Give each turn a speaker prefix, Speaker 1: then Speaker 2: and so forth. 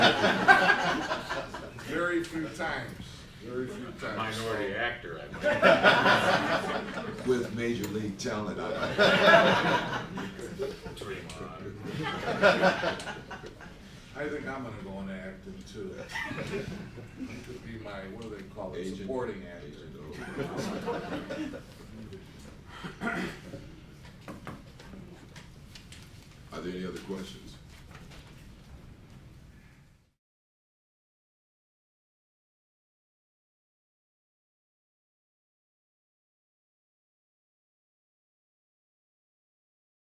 Speaker 1: few times, very few times.
Speaker 2: Minority
Speaker 1: So-
Speaker 2: actor, I might.
Speaker 3: with major league talent.
Speaker 2: Dream on.
Speaker 1: I think I'm gonna go into acting too. Could be my, what do they call it,
Speaker 3: Agent.
Speaker 1: supporting actor.